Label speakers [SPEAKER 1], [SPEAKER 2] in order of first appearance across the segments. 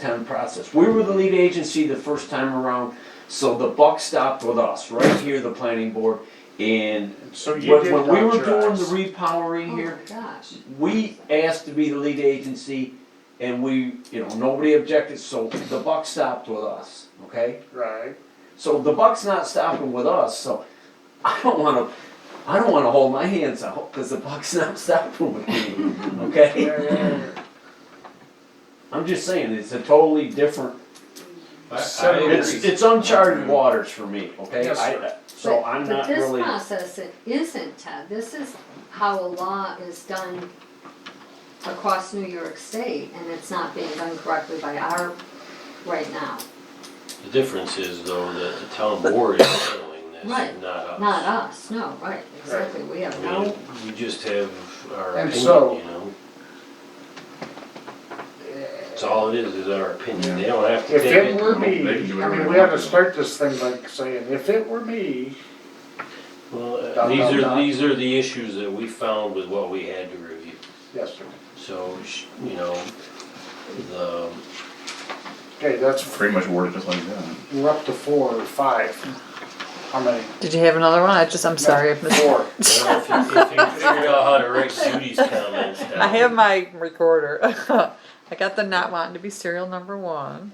[SPEAKER 1] town process. We were the lead agency the first time around, so the buck stopped with us, right here, the planning board. And
[SPEAKER 2] So you
[SPEAKER 1] when,
[SPEAKER 2] did
[SPEAKER 1] when we were
[SPEAKER 2] dot your
[SPEAKER 1] doing the
[SPEAKER 2] i's.
[SPEAKER 1] repowering
[SPEAKER 3] Oh my
[SPEAKER 1] here,
[SPEAKER 3] gosh.
[SPEAKER 1] we asked to be the lead agency and we, you know, nobody objected, so the buck stopped with us, okay?
[SPEAKER 2] Right.
[SPEAKER 1] So the buck's not stopping with us, so I don't wanna, I don't wanna hold my hands out, cause the buck's not stopping with me, okay?
[SPEAKER 2] Mm-hmm. Yeah, yeah, yeah.
[SPEAKER 1] I'm just saying, it's a totally different,
[SPEAKER 4] I-
[SPEAKER 2] So
[SPEAKER 4] I agree.
[SPEAKER 1] it's, it's uncharted waters for me, okay?
[SPEAKER 2] Yes,
[SPEAKER 1] I-
[SPEAKER 2] sir.
[SPEAKER 1] So
[SPEAKER 3] But-
[SPEAKER 1] I'm not
[SPEAKER 3] But
[SPEAKER 1] really,
[SPEAKER 3] this process, it isn't, Ted, this is how a law is done across New York State, and it's not being done correctly by our, right now,
[SPEAKER 5] The difference is though that the town board is handling this,
[SPEAKER 3] Right.
[SPEAKER 5] not us.
[SPEAKER 3] not us, no, right, exactly, we have
[SPEAKER 5] I mean,
[SPEAKER 3] no,
[SPEAKER 5] we just have our
[SPEAKER 2] And
[SPEAKER 5] opinion, you
[SPEAKER 2] so-
[SPEAKER 5] know? It's all it is, is our opinion, they don't have to
[SPEAKER 2] eh, If
[SPEAKER 5] take it.
[SPEAKER 2] it were me,
[SPEAKER 4] They can do
[SPEAKER 2] I
[SPEAKER 4] whatever
[SPEAKER 2] mean,
[SPEAKER 4] they
[SPEAKER 2] we had to
[SPEAKER 4] want.
[SPEAKER 2] start this thing like saying, if it were me,
[SPEAKER 5] Well,
[SPEAKER 2] Dot,
[SPEAKER 5] uh,
[SPEAKER 2] dot,
[SPEAKER 5] these
[SPEAKER 2] dot.
[SPEAKER 5] are, these are the issues that we found with what we had to review.
[SPEAKER 2] yes, sir.
[SPEAKER 5] So, sh- you know, the,
[SPEAKER 2] Okay, that's,
[SPEAKER 4] Pretty much worded just like that.
[SPEAKER 2] we're up to four or five. How many?
[SPEAKER 6] Did you have another one? I just, I'm sorry. I've missed-
[SPEAKER 2] Four.
[SPEAKER 5] I don't know if you, if you figured out how to write Judy's comments down.
[SPEAKER 6] I have my recorder. I got the not wanting to be serial number one.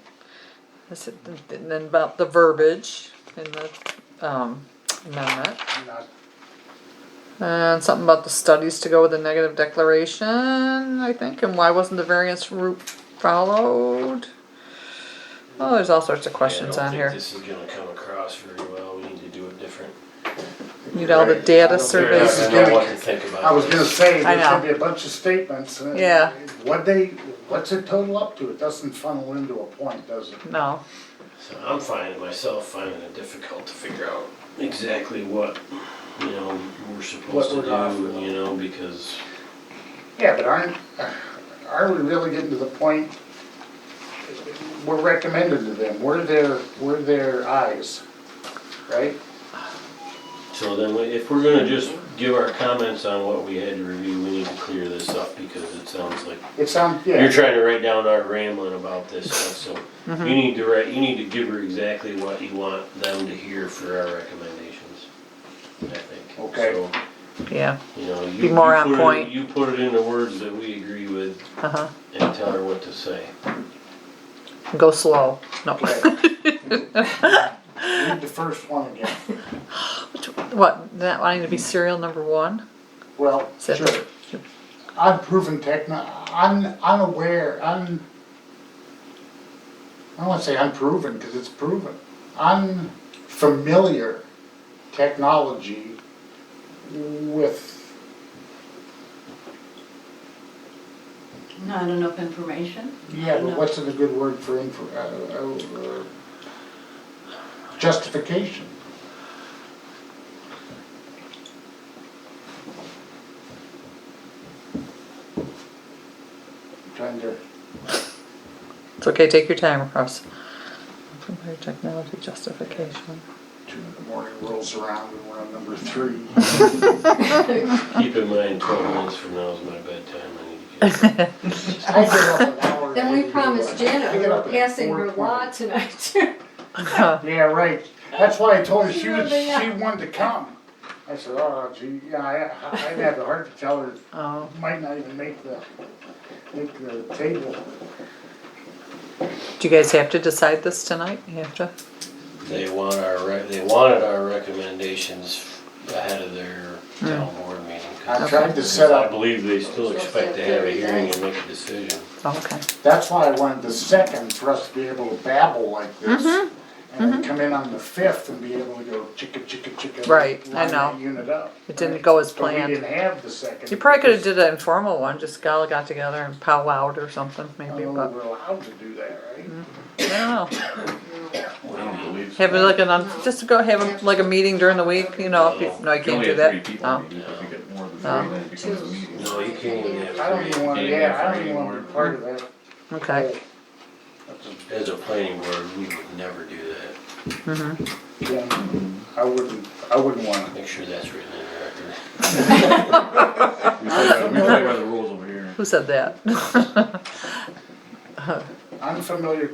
[SPEAKER 6] I said, and then about the verbiage in the um, amendment.
[SPEAKER 2] Not-
[SPEAKER 6] And something about the studies to go with the negative declaration, I think, and why wasn't the variance route followed? Oh, there's all sorts of questions on
[SPEAKER 5] I
[SPEAKER 6] here.
[SPEAKER 5] don't think this is gonna come across very well, we need to do it different.
[SPEAKER 6] Need all the
[SPEAKER 2] Right.
[SPEAKER 6] data
[SPEAKER 5] They're not
[SPEAKER 6] surveys.
[SPEAKER 5] gonna know what to think about.
[SPEAKER 2] I was gonna say,
[SPEAKER 6] I
[SPEAKER 2] there's gonna
[SPEAKER 6] know.
[SPEAKER 2] be a bunch of statements. and
[SPEAKER 6] Yeah.
[SPEAKER 2] What they, what's it total up to? It doesn't funnel into a point, does it?
[SPEAKER 6] No.
[SPEAKER 5] So I'm finding myself finding it difficult to figure out exactly what, you know, we're supposed to
[SPEAKER 2] we're off
[SPEAKER 5] do,
[SPEAKER 2] with.
[SPEAKER 5] you know, because
[SPEAKER 2] Yeah, but aren't, are we really getting to the point? We're recommended to them, we're their, we're their eyes, right?
[SPEAKER 5] So then, we- if we're gonna just give our comments on what we had to review, we need to clear this up, because it sounds like,
[SPEAKER 2] It sounds,
[SPEAKER 5] you're
[SPEAKER 2] yeah,
[SPEAKER 5] trying to write down our rambling about this stuff, so
[SPEAKER 6] Mm-hmm.
[SPEAKER 5] you need to write, you need to give her exactly what you want them to hear for our recommendations, I think.
[SPEAKER 2] Okay.
[SPEAKER 5] So,
[SPEAKER 6] Yeah.
[SPEAKER 5] You know, you.
[SPEAKER 6] Be more
[SPEAKER 5] you
[SPEAKER 6] on
[SPEAKER 5] put it-
[SPEAKER 6] point.
[SPEAKER 5] You put it into words that we agree with
[SPEAKER 6] Uh huh.
[SPEAKER 5] and tell her what to say.
[SPEAKER 6] Go slow. No.
[SPEAKER 2] read the first one again.
[SPEAKER 6] What, not wanting to be serial number one?
[SPEAKER 2] Well,
[SPEAKER 6] Said-
[SPEAKER 2] sure, unproven techno, un, unaware, un, I don't wanna say unproven, cause it's proven, unfamiliar technology with
[SPEAKER 7] Not enough information?
[SPEAKER 2] Yeah, but
[SPEAKER 7] No.
[SPEAKER 2] what's a good word for, infor- uh, uh, uh, justification? Trying to,
[SPEAKER 6] It's okay, take your time, Russ. Compare technology justification.
[SPEAKER 2] two in the morning rolls around and we're on number three.
[SPEAKER 5] Keep in mind, twelve minutes from now is my bedtime, I need to get.
[SPEAKER 2] I get up an hour
[SPEAKER 3] then we
[SPEAKER 2] early.
[SPEAKER 3] promised
[SPEAKER 2] I
[SPEAKER 3] Janet
[SPEAKER 2] get
[SPEAKER 3] we're
[SPEAKER 2] up at
[SPEAKER 3] passing her
[SPEAKER 2] 4:20.
[SPEAKER 3] law tonight too.
[SPEAKER 2] Yeah, right, that's why I told her
[SPEAKER 3] She
[SPEAKER 2] she was,
[SPEAKER 3] really,
[SPEAKER 2] she
[SPEAKER 3] uh,
[SPEAKER 2] wanted to come. I said, oh gee, yeah, I, I- I'd have the heart to tell her
[SPEAKER 6] Oh,
[SPEAKER 2] Might not even make the, make the table.
[SPEAKER 6] do you guys have to decide this tonight? You have to?
[SPEAKER 5] They want our, rec- they wanted our recommendations ahead of their town board meeting. 'cause-
[SPEAKER 2] I tried to set
[SPEAKER 5] Because I
[SPEAKER 2] up,
[SPEAKER 5] believe they still expect to have a hearing and make a decision.
[SPEAKER 6] Oh, okay.
[SPEAKER 2] that's why I wanted the second for us to be able to babble like
[SPEAKER 6] Mm-hmm.
[SPEAKER 2] this. And then come in on the fifth and be able to go chicka, chicka, chicka.
[SPEAKER 6] Right, I
[SPEAKER 2] line that
[SPEAKER 6] know.
[SPEAKER 2] Unit up.
[SPEAKER 6] It didn't go as
[SPEAKER 2] But we
[SPEAKER 6] planned.
[SPEAKER 2] didn't have the second.
[SPEAKER 6] You probably could have did an informal one, just all got together and powwowed or something,
[SPEAKER 2] I
[SPEAKER 6] maybe,
[SPEAKER 2] don't know if
[SPEAKER 6] but, Mm-hmm.
[SPEAKER 2] we're allowed to do that, right?
[SPEAKER 6] I don't know.
[SPEAKER 4] I don't believe so.
[SPEAKER 6] Have it like an, un- just go have a- like a meeting during the week, you know, if you, no, you
[SPEAKER 4] You can
[SPEAKER 6] can't
[SPEAKER 4] only
[SPEAKER 6] do
[SPEAKER 4] have three
[SPEAKER 6] that. Oh,
[SPEAKER 4] people, maybe,
[SPEAKER 6] No.
[SPEAKER 4] if you get more than three,
[SPEAKER 6] No.
[SPEAKER 4] then it becomes a meeting.
[SPEAKER 5] No, you can't even
[SPEAKER 2] I don't
[SPEAKER 5] have
[SPEAKER 2] even
[SPEAKER 5] three.
[SPEAKER 2] wanna, yeah, I don't even wanna be part of that.
[SPEAKER 6] Okay,
[SPEAKER 5] As a planning board, we would never do that.
[SPEAKER 2] Yeah, I wouldn't, I wouldn't wanna.
[SPEAKER 5] Make sure that's written in the record.
[SPEAKER 4] We play by- we play by the rules over here.
[SPEAKER 6] who said that?
[SPEAKER 2] I'm unfamiliar